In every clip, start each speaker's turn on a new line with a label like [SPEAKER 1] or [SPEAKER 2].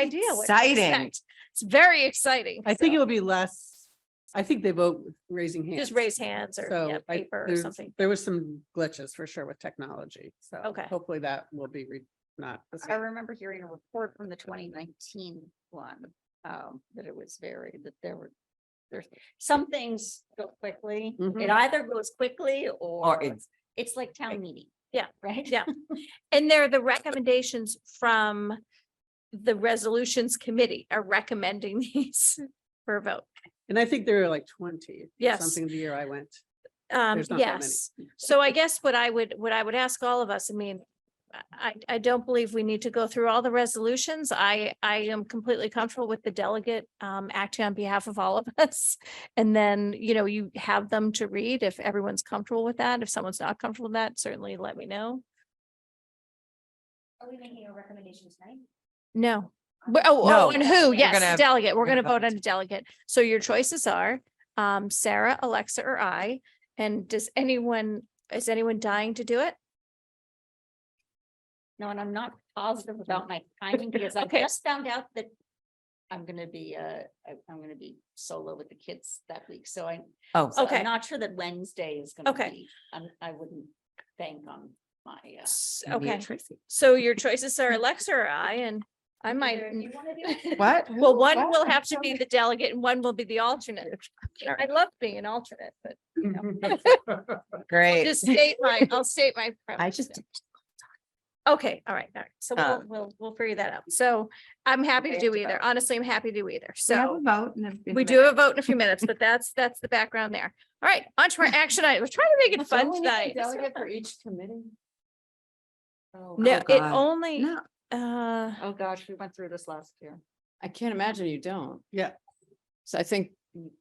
[SPEAKER 1] idea. what to
[SPEAKER 2] Exciting.
[SPEAKER 1] expect. It's very exciting.
[SPEAKER 3] I think
[SPEAKER 1] so
[SPEAKER 3] it would be less, I think they vote with raising hands.
[SPEAKER 1] Just raise hands or
[SPEAKER 3] So
[SPEAKER 1] yeah,
[SPEAKER 3] I-
[SPEAKER 1] paper or
[SPEAKER 3] there's-
[SPEAKER 1] something.
[SPEAKER 3] There was some glitches for sure with technology, so.
[SPEAKER 1] Okay.
[SPEAKER 3] Hopefully that will be re- not. the
[SPEAKER 4] I
[SPEAKER 3] same.
[SPEAKER 4] remember hearing a report from the twenty nineteen one, um, that it was very, that there were. There's some things go quickly.
[SPEAKER 3] Mhm.
[SPEAKER 4] It either goes quickly
[SPEAKER 2] Or
[SPEAKER 4] or
[SPEAKER 2] it's,
[SPEAKER 4] it's like town meeting.
[SPEAKER 1] Yeah.
[SPEAKER 4] Right?
[SPEAKER 1] Yeah. And they're the recommendations from the resolutions committee are recommending these for a vote.
[SPEAKER 3] And I think there were like twenty. or
[SPEAKER 1] Yes.
[SPEAKER 3] Something the year I went.
[SPEAKER 1] Um,
[SPEAKER 3] There's not that many.
[SPEAKER 1] yes. So I guess what I would, what I would ask all of us, I mean, I, I don't believe we need to go through all the resolutions. I, I am completely comfortable with the delegate um, acting on behalf of all of us. And then, you know, you have them to read if everyone's comfortable with that. If someone's not comfortable with that, certainly let me know.
[SPEAKER 4] Are we making a recommendation tonight?
[SPEAKER 1] No. But, oh,
[SPEAKER 2] No,
[SPEAKER 1] oh, and who?
[SPEAKER 2] gonna-
[SPEAKER 1] Yes, delegate. We're
[SPEAKER 2] we're gonna
[SPEAKER 1] gonna vote
[SPEAKER 2] vote.
[SPEAKER 1] on a delegate. So your choices are um, Sarah, Alexa, or I. And does anyone, is anyone dying to do it?
[SPEAKER 4] No, and I'm not positive about my timing because I
[SPEAKER 1] Okay.
[SPEAKER 4] just found out that. I'm gonna be, uh, I- I'm gonna be solo with the kids that week, so I,
[SPEAKER 2] oh,
[SPEAKER 4] so
[SPEAKER 1] Okay.
[SPEAKER 4] I'm not sure that Wednesday is gonna
[SPEAKER 1] Okay.
[SPEAKER 4] be. I'm, I wouldn't bank on my, uh.
[SPEAKER 1] S-
[SPEAKER 2] maybe a
[SPEAKER 1] Okay,
[SPEAKER 2] Tracy.
[SPEAKER 1] so your choices are Alexa or I, and I might, n-
[SPEAKER 2] What?
[SPEAKER 1] well, one will have to be the delegate and one will be the alternate. I love being an alternate, but
[SPEAKER 2] Great.
[SPEAKER 1] just state my, I'll state my.
[SPEAKER 2] I
[SPEAKER 1] preference.
[SPEAKER 2] just,
[SPEAKER 1] Okay, all right, all right. So we'll,
[SPEAKER 2] Um,
[SPEAKER 1] we'll, we''ll figure that out. So I'm happy to
[SPEAKER 4] have
[SPEAKER 1] do
[SPEAKER 4] to vote.
[SPEAKER 1] either. Honestly, I'm happy to do either.
[SPEAKER 5] We have
[SPEAKER 1] So.
[SPEAKER 5] a vote and if-
[SPEAKER 1] We do have a vote in a few minutes, but that's, that's the background there. All right, on to our action item. We're trying to make it fun tonight.
[SPEAKER 4] for each committee?
[SPEAKER 1] No,
[SPEAKER 2] Oh,
[SPEAKER 1] it
[SPEAKER 2] God.
[SPEAKER 1] only,
[SPEAKER 5] No,
[SPEAKER 1] uh,
[SPEAKER 4] Oh, gosh, we went through this last year.
[SPEAKER 6] I can't imagine you don't.
[SPEAKER 3] Yeah.
[SPEAKER 6] So I think.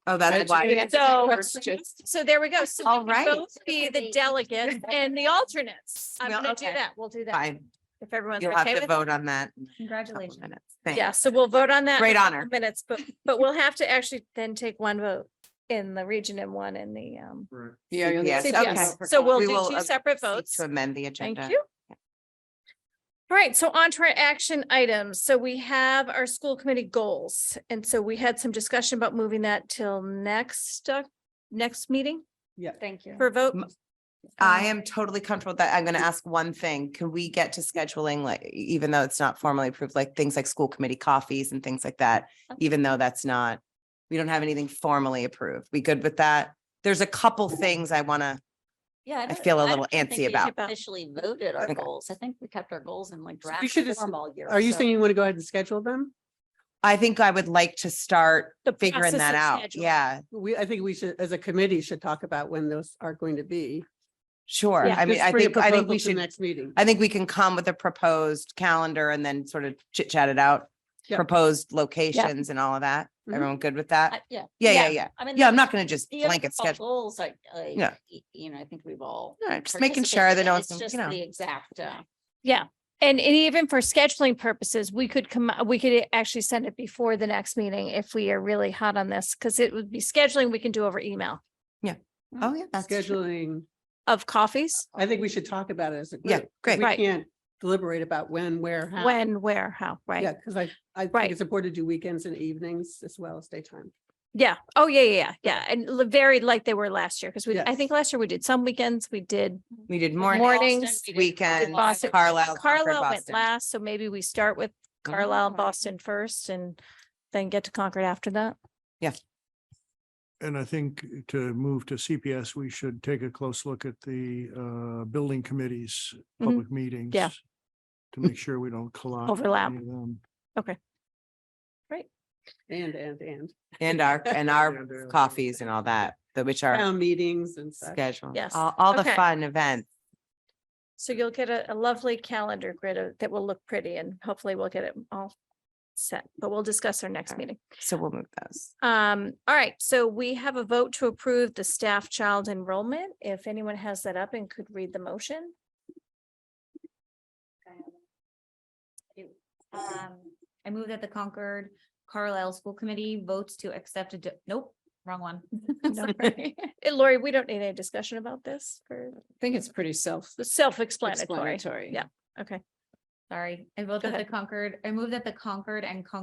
[SPEAKER 2] oh, that's why.
[SPEAKER 1] so,
[SPEAKER 6] questions.
[SPEAKER 1] so there we go. So
[SPEAKER 2] All
[SPEAKER 1] we
[SPEAKER 2] right.
[SPEAKER 1] can both be the delegates and the alternates. I'm
[SPEAKER 2] Well,
[SPEAKER 1] gonna do
[SPEAKER 2] okay.
[SPEAKER 1] that. We'll do that
[SPEAKER 2] Fine.
[SPEAKER 1] if everyone's
[SPEAKER 2] You'll have
[SPEAKER 1] okay
[SPEAKER 2] to
[SPEAKER 1] with it.
[SPEAKER 2] vote on that. in a couple
[SPEAKER 4] Congratulations.
[SPEAKER 2] minutes. Thanks.
[SPEAKER 1] Yeah, so we'll vote on that. in
[SPEAKER 2] Great
[SPEAKER 1] a couple
[SPEAKER 2] honor.
[SPEAKER 1] Minutes, but, but we'll have to actually then take one vote in the region and one in the, um,
[SPEAKER 6] Yeah, you'll
[SPEAKER 2] Yes,
[SPEAKER 6] need-
[SPEAKER 1] CPS.
[SPEAKER 2] okay.
[SPEAKER 1] So we'll
[SPEAKER 2] We
[SPEAKER 1] do
[SPEAKER 2] will,
[SPEAKER 1] two
[SPEAKER 2] uh,
[SPEAKER 1] separate
[SPEAKER 2] Seek
[SPEAKER 1] votes.
[SPEAKER 2] To amend the
[SPEAKER 1] Thank
[SPEAKER 2] agenda.
[SPEAKER 1] you. All right, so on to our action items. So we have our school committee goals. And so we had some discussion about moving that till next, uh, next meeting
[SPEAKER 4] Thank you.
[SPEAKER 1] for a vote.
[SPEAKER 2] M- I
[SPEAKER 1] Um,
[SPEAKER 2] am totally comfortable with that. I'm going to ask one thing. Can we get to scheduling, like, even though it's not formally approved, like things like school committee coffees and things like that? Even though that's not, we don't have anything formally approved. We good with that? There's a couple things I want to,
[SPEAKER 4] Yeah.
[SPEAKER 2] I feel a little
[SPEAKER 4] don't think
[SPEAKER 2] antsy
[SPEAKER 4] we
[SPEAKER 2] about-
[SPEAKER 4] Officially voted our
[SPEAKER 2] Okay.
[SPEAKER 4] goals. I think we kept our goals in like
[SPEAKER 3] So you
[SPEAKER 4] draft
[SPEAKER 3] should just-
[SPEAKER 4] form all year.
[SPEAKER 3] Are you
[SPEAKER 4] so-
[SPEAKER 3] saying you want to go ahead and schedule them?
[SPEAKER 2] I think I would like to start
[SPEAKER 1] The
[SPEAKER 2] figuring
[SPEAKER 1] process
[SPEAKER 2] that
[SPEAKER 1] of
[SPEAKER 2] out.
[SPEAKER 1] scheduling.
[SPEAKER 2] Yeah,
[SPEAKER 3] We, I think we should, as a committee, should talk about when those are going to be.
[SPEAKER 2] sure.
[SPEAKER 1] Yeah.
[SPEAKER 2] I mean,
[SPEAKER 3] Just
[SPEAKER 2] I
[SPEAKER 3] bring a
[SPEAKER 2] think, I think
[SPEAKER 3] proposal
[SPEAKER 2] we
[SPEAKER 3] to
[SPEAKER 2] should,
[SPEAKER 3] Next meeting.
[SPEAKER 2] I think we can come with a proposed calendar and then sort of chit chat it out.
[SPEAKER 3] Yeah.
[SPEAKER 2] Proposed locations and all of that.
[SPEAKER 3] Mhm.
[SPEAKER 2] Everyone good with that?
[SPEAKER 4] I- Yeah.
[SPEAKER 2] Yeah, yeah, yeah.
[SPEAKER 4] I mean.
[SPEAKER 2] Yeah,
[SPEAKER 4] the-
[SPEAKER 2] I'm not going to just
[SPEAKER 4] the
[SPEAKER 2] blanket
[SPEAKER 4] overall
[SPEAKER 2] schedule.
[SPEAKER 4] Goals, I, I-
[SPEAKER 2] Yeah.
[SPEAKER 4] y- you know, I think we've all.
[SPEAKER 2] All right, just making sure
[SPEAKER 4] participated
[SPEAKER 2] that
[SPEAKER 4] in.
[SPEAKER 2] no one's,
[SPEAKER 4] It's
[SPEAKER 2] gonna-
[SPEAKER 4] just
[SPEAKER 2] you know.
[SPEAKER 4] The exact, uh,
[SPEAKER 1] And, and even for scheduling purposes, we could come, we could actually send it before the next meeting if we are really hot on this, because it would be scheduling we can do over email
[SPEAKER 7] Mm-hmm.
[SPEAKER 2] Oh, yeah. that's true.
[SPEAKER 3] Scheduling,
[SPEAKER 1] of coffees,
[SPEAKER 3] I think we should talk about it as a group.
[SPEAKER 2] Yeah,
[SPEAKER 3] 'cause
[SPEAKER 2] great.
[SPEAKER 3] We
[SPEAKER 1] Right.
[SPEAKER 3] can't deliberate about when, where, how.
[SPEAKER 1] when, where, how,
[SPEAKER 3] Uh-huh. Yeah,
[SPEAKER 1] right?
[SPEAKER 3] because I, I
[SPEAKER 1] Right.
[SPEAKER 3] think it's important to do weekends and evenings as well as daytime.
[SPEAKER 1] Yeah. Oh, yeah, yeah, yeah, yeah. And l- very like they were last year, because we, I
[SPEAKER 3] Yes.
[SPEAKER 1] think last year we did some weekends, we did
[SPEAKER 2] We did
[SPEAKER 4] Boston,
[SPEAKER 2] morning,
[SPEAKER 4] we did
[SPEAKER 2] weekend,
[SPEAKER 1] Boston.
[SPEAKER 2] Carlisle, Concord,
[SPEAKER 1] Carlisle went
[SPEAKER 2] Boston.
[SPEAKER 1] last, so maybe we start with Carlisle, and Boston first and then get to Concord after that.
[SPEAKER 8] And I think uh, to move to CPS, we should take a close look at the uh building committees,
[SPEAKER 1] Mhm.
[SPEAKER 8] public meetings.
[SPEAKER 1] Yeah. Mm.
[SPEAKER 8] To make sure we don't collide. with
[SPEAKER 1] Overlap.
[SPEAKER 8] any of them.
[SPEAKER 3] And, and, and
[SPEAKER 2] And our, and
[SPEAKER 8] Yeah, they're-
[SPEAKER 2] our coffees and all that, that which are
[SPEAKER 3] town meetings and such.
[SPEAKER 2] scheduled.
[SPEAKER 1] Yes.
[SPEAKER 2] All, all the
[SPEAKER 1] Okay.
[SPEAKER 2] fun events.
[SPEAKER 1] So you'll get a, a lovely calendar grid of- that will look pretty and hopefully we'll get it all set, but we'll discuss our next
[SPEAKER 2] Alright.
[SPEAKER 1] meeting.
[SPEAKER 2] So we'll move those.
[SPEAKER 1] Um, all right, so we have a vote to approve the staff child enrollment. If anyone has that up and could read the motion.
[SPEAKER 7] Um, I move that the Concord Carlisle School Committee votes to accept a, do- nope, wrong one. Sorry.
[SPEAKER 1] Eh, Lori, we don't need any discussion about this for
[SPEAKER 6] I think it's pretty self-
[SPEAKER 1] the self-explanatory.
[SPEAKER 6] explanatory.
[SPEAKER 1] Yeah. Okay.
[SPEAKER 4] Sorry, I vote that the Concord, I move that the Concord and Concord